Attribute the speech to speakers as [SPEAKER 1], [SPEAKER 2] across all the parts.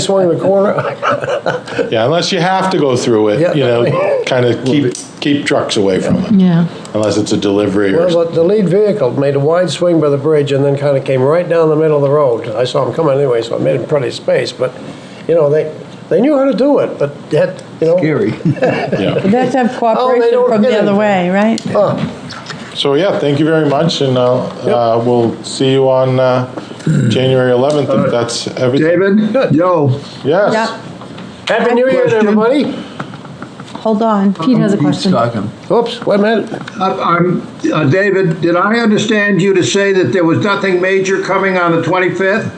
[SPEAKER 1] swing the corner.
[SPEAKER 2] Yeah, unless you have to go through
[SPEAKER 1] Yeah.
[SPEAKER 2] it, you know, kind of keep, keep trucks away from it,
[SPEAKER 3] Yeah,
[SPEAKER 2] unless it's a delivery or,
[SPEAKER 1] Well, the lead vehicle made a wide swing by the bridge and then kind of came right down the middle of the road. I saw him coming anyway, so I made him plenty of space, but, you know, they, they knew how to do it, but yet, you know.
[SPEAKER 4] Gary.
[SPEAKER 2] yeah.
[SPEAKER 3] but that's have cooperation
[SPEAKER 1] Oh, don't
[SPEAKER 3] from
[SPEAKER 1] get
[SPEAKER 3] the other
[SPEAKER 1] it.
[SPEAKER 3] way, right?
[SPEAKER 2] So, yeah, thank you very much, and I'll, uh, we'll see you on, uh, January 11th, if that's everything.
[SPEAKER 4] David, yo.
[SPEAKER 2] Yes,
[SPEAKER 3] Yep,
[SPEAKER 1] Happy New Year to
[SPEAKER 4] Question?
[SPEAKER 1] everybody.
[SPEAKER 3] hold on, Pete has a question.
[SPEAKER 1] Oops, wait a minute.
[SPEAKER 4] I- I'm, uh, David, did I understand you to say that there was nothing major coming on the 25th?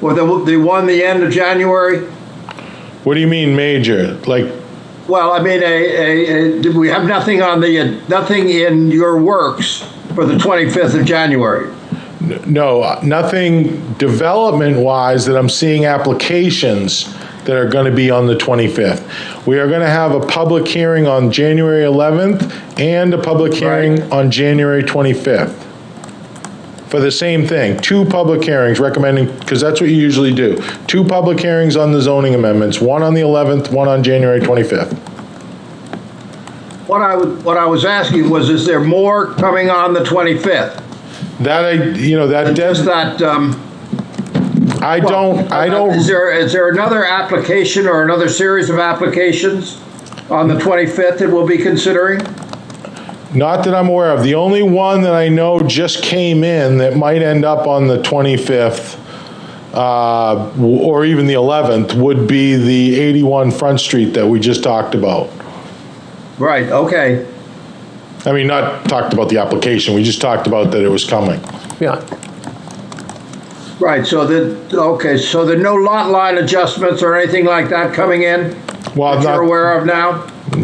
[SPEAKER 4] Or the, the one, the end of January?
[SPEAKER 2] what do you mean major? Like,
[SPEAKER 4] Well, I mean, a, a, a, did we have nothing on the, uh, nothing in your works for the 25th of January?
[SPEAKER 2] no, nothing development-wise that I'm seeing applications that are gonna be on the 25th. We are gonna have a public hearing on January 11th and a public hearing on January 25th. for the same thing, two public hearings recommending, because that's what you usually do. Two public hearings on the zoning amendments, one on the 11th, one on January 25th.
[SPEAKER 4] What I, was- what I was asking was, is there more coming on the 25th?
[SPEAKER 2] That, I, you know, that,
[SPEAKER 4] Is
[SPEAKER 2] does-
[SPEAKER 4] that, um,
[SPEAKER 2] I don't, I
[SPEAKER 4] uh,
[SPEAKER 2] don't,
[SPEAKER 4] Is there, is there another application or another series of applications on the 25th that we'll be considering?
[SPEAKER 2] not that I'm aware of. The only one that I know just came in that might end up on the 25th, uh, w- or even the 11th, would be the 81 Front Street that we just talked about.
[SPEAKER 4] Right, okay.
[SPEAKER 2] I mean, not talked about the application, we just talked about that it was coming.
[SPEAKER 1] Yeah,
[SPEAKER 4] Right, so the, okay, so there are no lot line adjustments or anything like that coming in
[SPEAKER 2] Well,
[SPEAKER 4] that
[SPEAKER 2] not-
[SPEAKER 4] you're aware of now?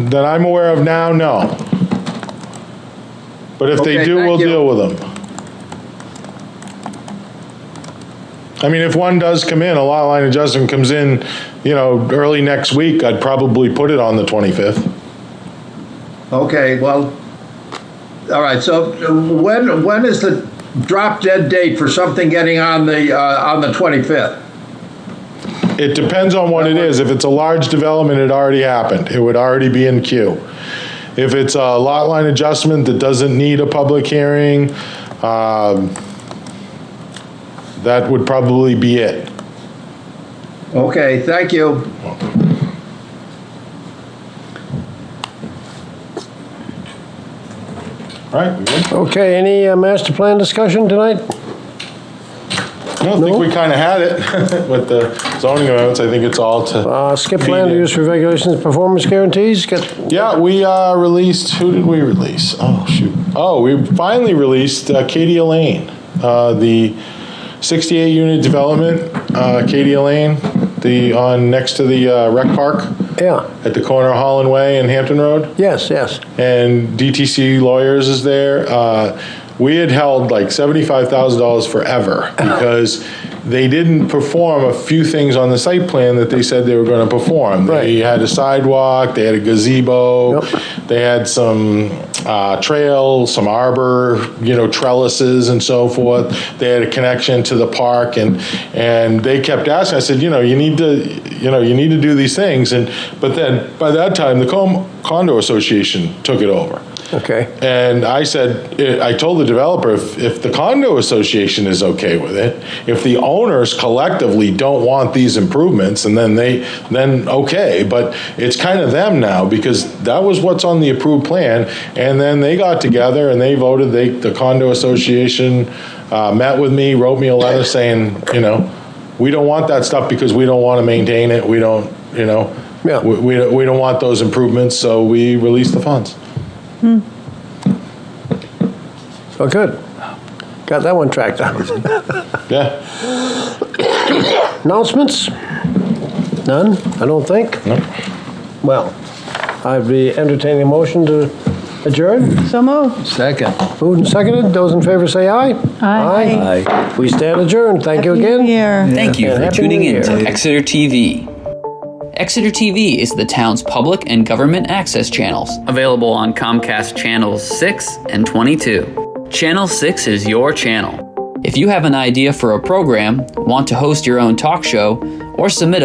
[SPEAKER 2] that I'm aware of now, no. But if they
[SPEAKER 4] Okay,
[SPEAKER 2] do,
[SPEAKER 4] thank
[SPEAKER 2] we'll
[SPEAKER 4] you.
[SPEAKER 2] deal with them. I mean, if one does come in, a lot line adjustment comes in, you know, early next week, I'd probably put it on the 25th.
[SPEAKER 4] Okay, well, all right, so when, when is the drop dead date for something getting on the, uh, on the 25th?
[SPEAKER 2] It depends on what it is. If it's a large development, it already happened. It would already be in queue. If it's a lot line adjustment that doesn't need a public hearing, um, that would probably be it.
[SPEAKER 4] Okay, thank you.
[SPEAKER 2] All right, we good?
[SPEAKER 1] okay, any uh, master plan discussion tonight?
[SPEAKER 2] I don't think we kind of had it with the zoning amendments. I think it's all to,
[SPEAKER 1] Uh, Skip land use for regulations, performance guarantees, get,
[SPEAKER 2] yeah, we uh, released, who did we release? Oh, shoot. Oh, we finally released uh, Katie Lane, uh, the 68-unit development, uh, Katie Lane, the, on, next to the uh, rec park
[SPEAKER 1] yeah,
[SPEAKER 2] at the corner of Holland Way and Hampton Road.
[SPEAKER 1] yes, yes.
[SPEAKER 2] and DTC Lawyers is there. Uh, we had held like $75,000 forever because they didn't perform a few things on the site plan that they said they were going to perform. They had a sidewalk, they had a gazebo,
[SPEAKER 1] Yep.
[SPEAKER 2] they had some uh, trail, some arbor, you know, trellises and so forth. They had a connection to the park, and and they kept asking. I said, you know, you need to, you know, you need to do these things. And but then by that time, the Com- condo association took it over.
[SPEAKER 1] Okay,
[SPEAKER 2] And I said, eh, I told the developer, if, if the condo association is okay with it, if the owners collectively don't want these improvements, and then they, then okay, but it's kind of them now, because that was what's on the approved plan, and then they got together and they voted, they, the condo association uh, met with me, wrote me a letter saying, you know, we don't want that stuff because we don't want to maintain it, we don't, you know,
[SPEAKER 1] Yeah.
[SPEAKER 2] we, we we don't want those improvements, so we release the funds.
[SPEAKER 1] oh, good. Got that one tracked down.
[SPEAKER 2] Yeah.
[SPEAKER 1] Announcements? None, I don't think?
[SPEAKER 2] Nope.
[SPEAKER 1] Well, I'd be entertaining a motion to adjourn.
[SPEAKER 3] So moved.
[SPEAKER 4] Second.
[SPEAKER 1] Moved and seconded, those in favor say aye.
[SPEAKER 3] Aye.
[SPEAKER 1] Aye. We stand adjourned, thank you
[SPEAKER 3] Happy New
[SPEAKER 1] again.
[SPEAKER 3] Year.
[SPEAKER 5] Thank you
[SPEAKER 1] And
[SPEAKER 5] for
[SPEAKER 1] Happy
[SPEAKER 5] tuning
[SPEAKER 1] New
[SPEAKER 5] in to
[SPEAKER 1] Year.
[SPEAKER 5] Exeter TV. Exeter TV is the town's public and government access channels, available on Comcast Channels 6 and 22. Channel 6 is your channel. If you have an idea for a program, want to host your own talk show, or submit